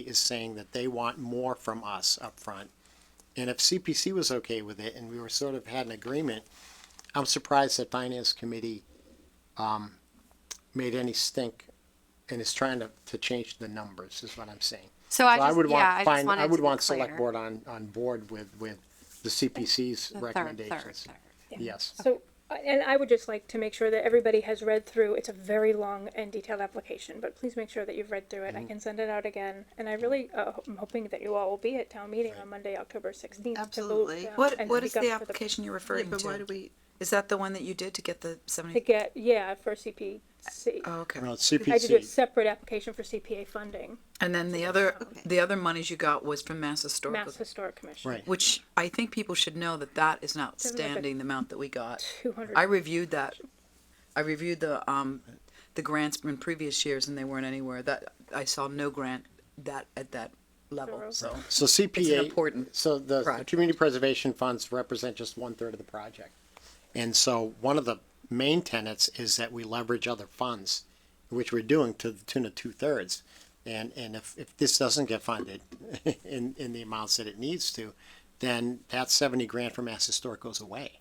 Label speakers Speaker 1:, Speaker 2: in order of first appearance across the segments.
Speaker 1: is saying that they want more from us up front. And if CPC was okay with it and we were sort of had an agreement, I'm surprised that Finance Committee um, made any stink and is trying to, to change the numbers is what I'm saying.
Speaker 2: So I
Speaker 1: So I
Speaker 2: just,
Speaker 1: would
Speaker 2: yeah, I
Speaker 1: want,
Speaker 2: just
Speaker 1: fin-
Speaker 2: wanted
Speaker 1: I
Speaker 2: to
Speaker 1: would
Speaker 2: be
Speaker 1: want select
Speaker 2: clear.
Speaker 1: board on, on board with, with the CPC's
Speaker 2: The third, third,
Speaker 1: recommendations.
Speaker 2: third.
Speaker 1: Yes,
Speaker 3: So, and I would just like to make sure that everybody has read through, it's a very long and detailed application, but please make sure that you've read through it. I
Speaker 4: Mm-hmm.
Speaker 3: can send it out again, and I really, uh, ho- I'm hoping that you all will be at town meeting on Monday, October sixteenth.
Speaker 5: Absolutely.
Speaker 4: What, what is the application you're referring
Speaker 5: but why do
Speaker 4: to?
Speaker 5: we,
Speaker 4: Is that the one that you did to get the
Speaker 3: To
Speaker 4: seventy?
Speaker 3: get, yeah, for CPC.
Speaker 4: Oh, okay.
Speaker 1: well,
Speaker 3: I did a
Speaker 1: CPC,
Speaker 3: separate application for CPA funding,
Speaker 4: And then the other,
Speaker 5: Okay.
Speaker 4: the other monies you got was from Mass Historical,
Speaker 3: Mass Historic Commission.
Speaker 1: right.
Speaker 4: which I think people should know that that is an
Speaker 3: look like-
Speaker 4: outstanding amount that we got.
Speaker 3: Two hundred.
Speaker 4: I reviewed that. I reviewed the, um, the grants from previous years and they weren't anywhere. That, I saw no grant that, at that level,
Speaker 3: Thorough.
Speaker 4: so.
Speaker 1: So CPA,
Speaker 4: important
Speaker 1: so the- the
Speaker 4: project.
Speaker 1: community preservation funds represent just one-third of the project. And so one of the main tenets is that we leverage other funds, which we're doing to the tune of two-thirds. And, and if, if this doesn't get funded in, in the amounts that it needs to, then that seventy grand from Mass Historic goes away.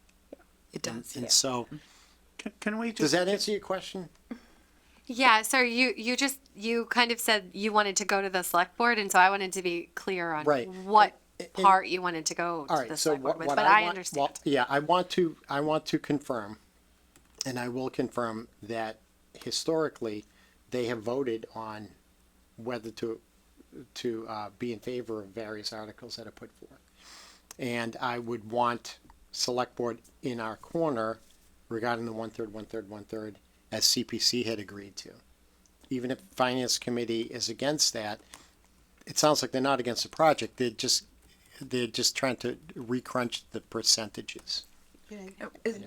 Speaker 4: It does,
Speaker 1: And so,
Speaker 4: Mm-hmm.
Speaker 6: Can- Can we
Speaker 1: does
Speaker 6: just,
Speaker 1: that answer your question?
Speaker 2: Yeah, so you, you just, you kind of said you wanted to go to the select board, and so I wanted to be clear on
Speaker 1: Right.
Speaker 2: what
Speaker 1: And- and-
Speaker 2: part you wanted to go
Speaker 1: All
Speaker 2: to the
Speaker 1: right, so
Speaker 2: select board
Speaker 1: what,
Speaker 2: with,
Speaker 1: what I
Speaker 2: but I
Speaker 1: want, well,
Speaker 2: understand.
Speaker 1: yeah, I want to, I want to confirm, and I will confirm that historically, they have voted on whether to, to, uh, be in favor of various articles that are put forth. And I would want select board in our corner regarding the one-third, one-third, one-third, as CPC had agreed to. Even if finance committee is against that, it sounds like they're not against the project, they're just they're just trying to recrunch the percentages.
Speaker 5: Yeah.
Speaker 4: is-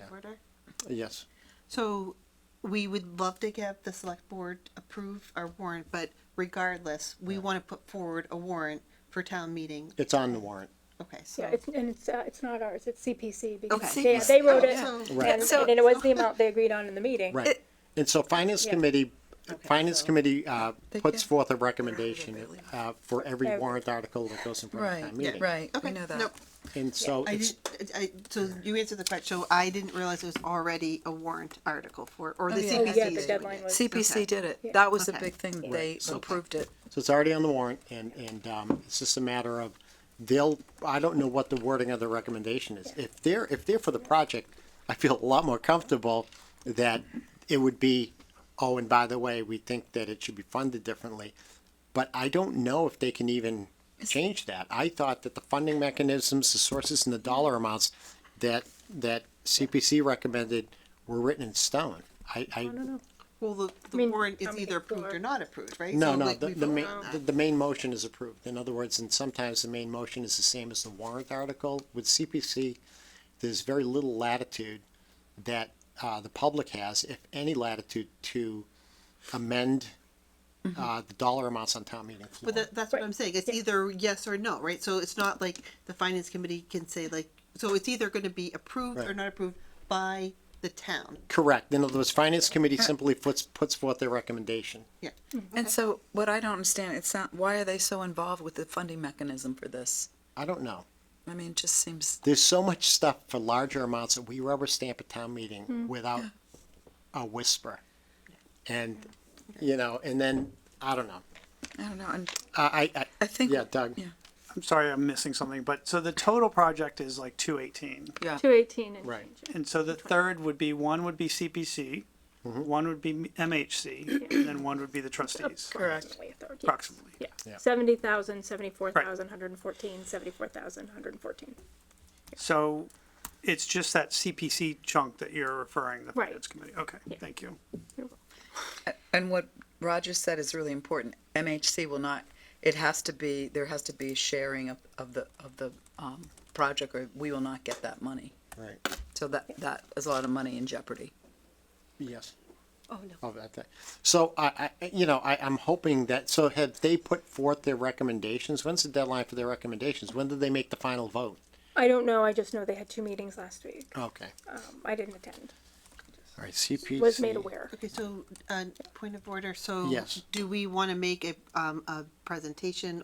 Speaker 1: Yes.
Speaker 5: So we would love to have the select board approve our warrant, but regardless, we want to put forward a warrant for town meeting.
Speaker 1: It's on the warrant.
Speaker 5: Okay, so.
Speaker 3: Yeah, it's, and it's, uh, it's not ours, it's CPC, because
Speaker 4: Okay.
Speaker 3: they, they wrote it,
Speaker 5: Oh, so-
Speaker 1: Right.
Speaker 3: and,
Speaker 4: So-
Speaker 3: and it was the amount they agreed on in the meeting.
Speaker 1: Right. And so finance
Speaker 3: Yeah.
Speaker 1: committee,
Speaker 5: Okay,
Speaker 1: finance
Speaker 5: so-
Speaker 1: committee, uh,
Speaker 4: They
Speaker 1: puts
Speaker 4: can-
Speaker 1: forth a recommendation, uh, for every
Speaker 3: Every-
Speaker 1: warrant article that goes in front of
Speaker 4: Right,
Speaker 1: town meeting.
Speaker 4: right, we
Speaker 5: Okay,
Speaker 4: know that.
Speaker 5: nope,
Speaker 1: And so
Speaker 5: I
Speaker 1: it's,
Speaker 5: didn't, I, so you answered the question, so I didn't realize it was already a warrant article for, or the
Speaker 4: yeah.
Speaker 5: CPC.
Speaker 4: Oh,
Speaker 3: Oh, yeah,
Speaker 5: is
Speaker 3: the
Speaker 5: doing
Speaker 3: deadline
Speaker 5: it.
Speaker 3: was.
Speaker 4: CPC
Speaker 5: Okay.
Speaker 4: did it.
Speaker 3: Yeah.
Speaker 4: That was the
Speaker 5: Okay.
Speaker 4: big thing. They
Speaker 5: so-
Speaker 4: approved it.
Speaker 1: so it's already on the warrant and, and, um, it's just a matter of they'll, I don't know what the wording of the recommendation is. If they're, if they're for the project, I feel a lot more comfortable that it would be, oh, and by the way, we think that it should be funded differently. But I don't know if they can even change that. I thought that the funding mechanisms, the sources and the dollar amounts that, that CPC recommended were written in stone. I, I,
Speaker 5: Well, the, the
Speaker 3: mean,
Speaker 5: warrant is
Speaker 3: I'm
Speaker 5: either approved
Speaker 3: sure.
Speaker 5: or not approved, right?
Speaker 1: no,
Speaker 5: So,
Speaker 1: no,
Speaker 5: like,
Speaker 1: the,
Speaker 5: we
Speaker 1: the
Speaker 5: vote
Speaker 1: main,
Speaker 5: on
Speaker 1: the,
Speaker 5: that.
Speaker 1: the main motion is approved. In other words, and sometimes the main motion is the same as the warrant article. With CPC, there's very little latitude that, uh, the public has, if any latitude, to amend, uh, the dollar amounts on town meeting floor.
Speaker 5: Mm-hmm. But that, that's what I'm saying. It's either yes or no, right? So it's not like the finance committee can say like, so it's either going to be approved or
Speaker 1: Right.
Speaker 5: not approved by the town.
Speaker 1: Correct. In other words, finance
Speaker 5: Uh,
Speaker 1: committee simply puts, puts forth their recommendation.
Speaker 5: Yeah.
Speaker 4: And so what I don't understand, it's not, why are they so involved with the funding mechanism for this?
Speaker 1: I don't know.
Speaker 4: I mean, it just seems,
Speaker 1: There's so much stuff for larger amounts that we rubber stamp at town meeting without a whisper. And, you know, and then, I don't know.
Speaker 4: I don't know, and
Speaker 1: I, I,
Speaker 4: I think.
Speaker 1: Yeah, Doug.
Speaker 4: Yeah,
Speaker 6: I'm sorry, I'm missing something, but so the total project is like two eighteen.
Speaker 4: yeah.
Speaker 3: Two eighteen and
Speaker 1: Right.
Speaker 3: change.
Speaker 6: And so the third would be, one would be CPC, one would be MHC, and then one would be the trustees,
Speaker 4: Correct.
Speaker 3: Approximately a third, yes.
Speaker 6: approximately.
Speaker 3: Yeah,
Speaker 1: Yeah.
Speaker 3: seventy thousand, seventy-four thousand, hundred and fourteen, seventy-four thousand, hundred and fourteen.
Speaker 6: So it's just that CPC chunk that you're referring, the
Speaker 3: Right.
Speaker 6: finance committee. Okay, thank you.
Speaker 4: And what Roger said is really important. MHC will not, it has to be, there has to be sharing of, of the, of the, um, project or we will not get that money.
Speaker 1: right,
Speaker 4: So that, that is a lot of money in jeopardy.
Speaker 1: yes.
Speaker 4: Oh, no.
Speaker 1: of that thing. So I, I, you know, I, I'm hoping that, so have they put forth their recommendations? When's the deadline for their recommendations? When did they make the final vote?
Speaker 3: I don't know, I just know they had two meetings last week.
Speaker 1: Okay,
Speaker 3: Um, I didn't attend.
Speaker 1: All right, CPC.
Speaker 3: was made aware.
Speaker 5: Okay, so, uh, point of order, so
Speaker 1: Yes.
Speaker 5: do we want to make a, um, a presentation